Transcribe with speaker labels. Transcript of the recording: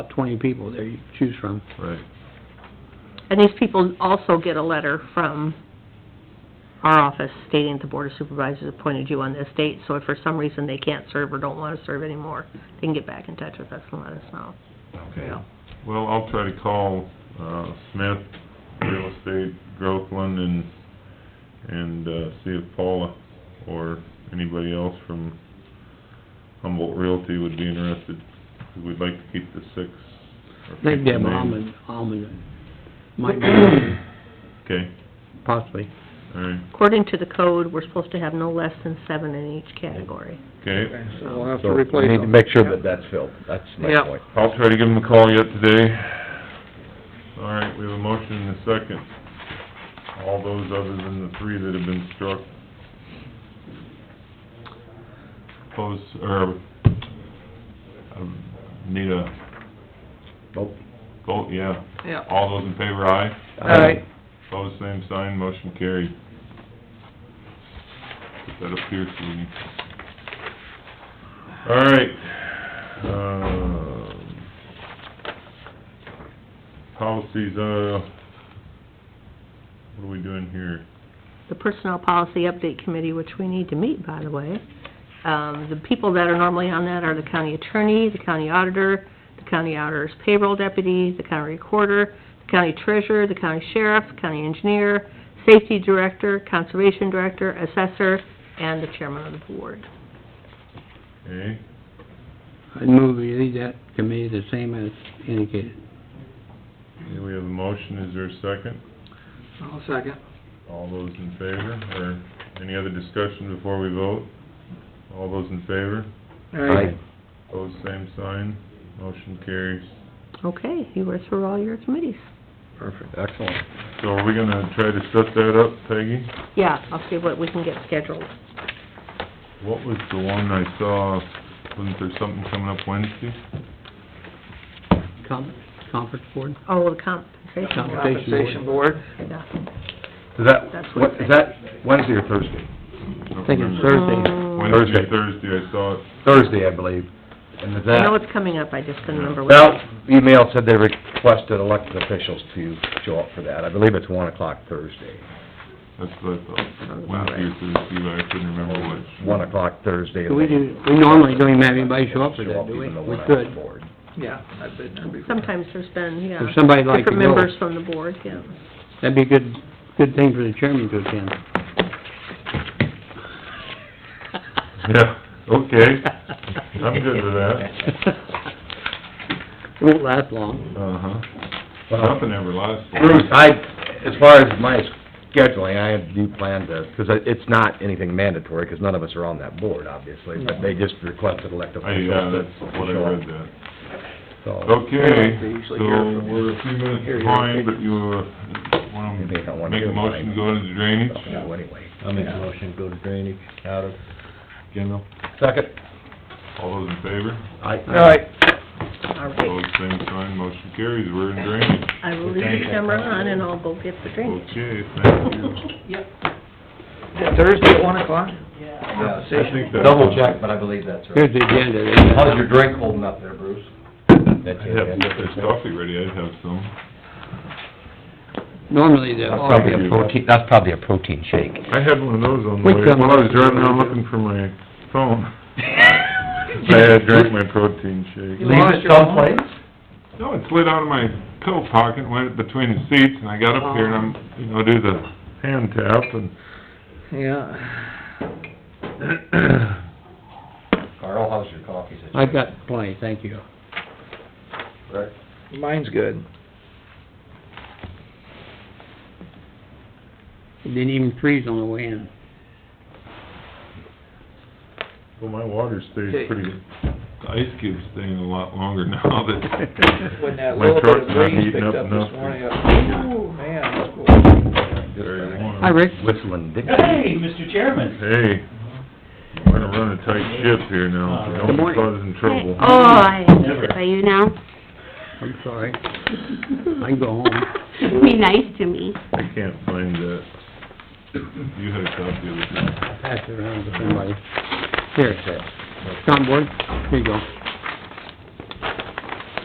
Speaker 1: twenty people there you can choose from.
Speaker 2: Right.
Speaker 3: And these people also get a letter from our office stating that the Board of Supervisors appointed you on this date, so if for some reason they can't serve or don't want to serve anymore, they can get back in touch with us and let us know.
Speaker 2: Okay.
Speaker 3: Yeah.
Speaker 2: Well, I'll try to call, uh, Smith Real Estate, Groveland, and, and, uh, see if Paula or anybody else from Humboldt Realty would be interested, 'cause we'd like to keep the six. or
Speaker 1: I think
Speaker 2: six
Speaker 1: Deb
Speaker 2: names.
Speaker 1: Almond, Almond might be,
Speaker 2: Okay,
Speaker 1: possibly.
Speaker 2: all right,
Speaker 3: According to the code, we're supposed to have no less than seven in each category.
Speaker 2: okay.
Speaker 4: So we'll have to
Speaker 5: So we
Speaker 4: replace them.
Speaker 5: need to make sure that that's filled, that's my
Speaker 4: Yeah.
Speaker 5: point.
Speaker 2: I'll try to give them a call yet today. All right, we have a motion and a second. All those other than the three that have been struck. Close, or, um, need a
Speaker 5: Nope.
Speaker 2: vote, yeah.
Speaker 4: Yeah.
Speaker 2: All those in favor, aye.
Speaker 4: All right,
Speaker 2: Pose same sign, motion carried. Put that up here, Sweeney. All right, um, policies, uh, what are we doing here?
Speaker 3: The Personnel Policy Update Committee, which we need to meet, by the way, um, the people that are normally on that are the county attorney, the county auditor, the county auditor's payroll deputy, the county recorder, the county treasurer, the county sheriff, the county engineer, safety director, conservation director, assessor, and the chairman of the board.
Speaker 2: Okay,
Speaker 1: I'd move we leave that committee the same as indicated.
Speaker 2: okay, we have a motion, is there a second?
Speaker 4: I'll second.
Speaker 2: All those in favor, or any other discussion before we vote? All those in favor?
Speaker 4: All right,
Speaker 5: Aye.
Speaker 2: Pose same sign, motion carries.
Speaker 3: Okay, you were through all your committees.
Speaker 4: perfect.
Speaker 5: Excellent.
Speaker 2: So are we gonna try to set that up, Peggy?
Speaker 3: Yeah, I'll see what we can get scheduled.
Speaker 2: What was the one I saw, wasn't there something coming up Wednesday?
Speaker 1: Com- Conference board?
Speaker 3: Oh, the compensation,
Speaker 1: Compensation
Speaker 4: Compensation board,
Speaker 3: yeah.
Speaker 5: Is that,
Speaker 3: That's
Speaker 5: what, is that Wednesday or Thursday?
Speaker 2: I
Speaker 1: I think it's Thursday.
Speaker 3: Oh.
Speaker 2: Wednesday,
Speaker 5: Thursday.
Speaker 2: Thursday, I saw it.
Speaker 5: Thursday, I believe. And is
Speaker 3: I know
Speaker 5: that,
Speaker 3: it's coming up, I just couldn't remember. what-
Speaker 5: well, email said they requested elected officials to show up for that. I believe it's one o'clock Thursday.
Speaker 2: That's what I thought. Wednesday or Thursday, but I couldn't remember which.
Speaker 5: Oh, One o'clock Thursday.
Speaker 1: Do we do, we normally don't even have anybody show up for that, do we?
Speaker 5: Even though
Speaker 1: We
Speaker 5: we're not on the
Speaker 1: could.
Speaker 5: board.
Speaker 4: yeah, I've been there before.
Speaker 3: Sometimes there's been, yeah.
Speaker 1: If somebody'd like to
Speaker 3: Different
Speaker 1: go.
Speaker 3: members from the board, yeah.
Speaker 1: That'd be a good, good thing for the chairman to attend.
Speaker 2: Yeah, okay. I'm good with that.
Speaker 1: It won't last long.
Speaker 2: Uh-huh.
Speaker 5: Well-
Speaker 2: Nothing ever lasts.
Speaker 5: Bruce, I, as far as my scheduling, I do plan to, because it's not anything mandatory, because none of us are on that board, obviously, but they just requested elected
Speaker 2: I,
Speaker 5: officials
Speaker 2: yeah,
Speaker 5: to
Speaker 2: that's what I
Speaker 5: show
Speaker 2: read
Speaker 5: up.
Speaker 2: that.
Speaker 5: So,
Speaker 2: Okay,
Speaker 4: They usually
Speaker 2: so
Speaker 4: hear from you.
Speaker 2: we're a few minutes
Speaker 4: Hear your
Speaker 2: behind, but
Speaker 4: opinion.
Speaker 2: you, uh, wanna
Speaker 5: You may not wanna
Speaker 2: make a
Speaker 5: do
Speaker 2: motion, to
Speaker 5: mine.
Speaker 2: go into drainage?
Speaker 5: so anyway.
Speaker 6: I'll make a motion, go to drainage out of general.
Speaker 5: Second,
Speaker 2: All those in favor?
Speaker 4: All
Speaker 5: I,
Speaker 4: right,
Speaker 3: All
Speaker 2: Opposed,
Speaker 3: right.
Speaker 2: same sign, motion carries, we're in drainage.
Speaker 3: I will leave the camera on and I'll go get the drink.
Speaker 2: Okay, thank you.
Speaker 4: Thursday at one o'clock?
Speaker 2: I
Speaker 4: Yeah.
Speaker 2: think that-
Speaker 6: Double check, but I believe that's right.
Speaker 1: Here's the agenda.
Speaker 6: How's your drink holding up there, Bruce?
Speaker 5: that's
Speaker 2: I'd
Speaker 5: your
Speaker 2: have, if
Speaker 5: agenda.
Speaker 2: there's coffee ready, I'd have some.
Speaker 1: Normally the...
Speaker 5: That's probably a protein, that's probably a protein shake.
Speaker 2: I had one of those on
Speaker 1: We
Speaker 2: the way,
Speaker 1: come-
Speaker 2: while I was driving around looking for my phone. I had drank my protein shake.
Speaker 6: Leave it someplace?
Speaker 2: No, it slid out of my coat pocket, went between the seats, and I got up here and I'm, you know, do the hand tap and...
Speaker 4: Yeah.
Speaker 6: Carl, how's your coffee situation?
Speaker 1: I've got plenty, thank you.
Speaker 6: Rick?
Speaker 4: Mine's good.
Speaker 1: It Didn't even freeze on the way in.
Speaker 2: Well, my water
Speaker 4: Okay.
Speaker 2: stays pretty, the ice cube's staying a lot longer now that...
Speaker 4: When that
Speaker 2: my
Speaker 4: little bit of
Speaker 2: truck's not
Speaker 4: breeze
Speaker 2: heating
Speaker 4: picked up
Speaker 2: enough
Speaker 4: this
Speaker 2: to-
Speaker 4: morning, I- oh, man, that's cool.
Speaker 2: Very warm.
Speaker 1: Hi, Rick.
Speaker 5: Whistling Dixie.
Speaker 7: Hey, Mr. Chairman.
Speaker 2: Hey, we're gonna run a tight ship here now, so don't
Speaker 1: Good
Speaker 2: be
Speaker 1: morning.
Speaker 2: causing trouble.
Speaker 8: Oh, I hate it by you now.
Speaker 1: I'm sorry. I can go home.
Speaker 8: Be nice to me.
Speaker 2: I can't find that. You had a copy of it, didn't you?
Speaker 1: Pass it around to somebody. Here, Tom Board, here you go.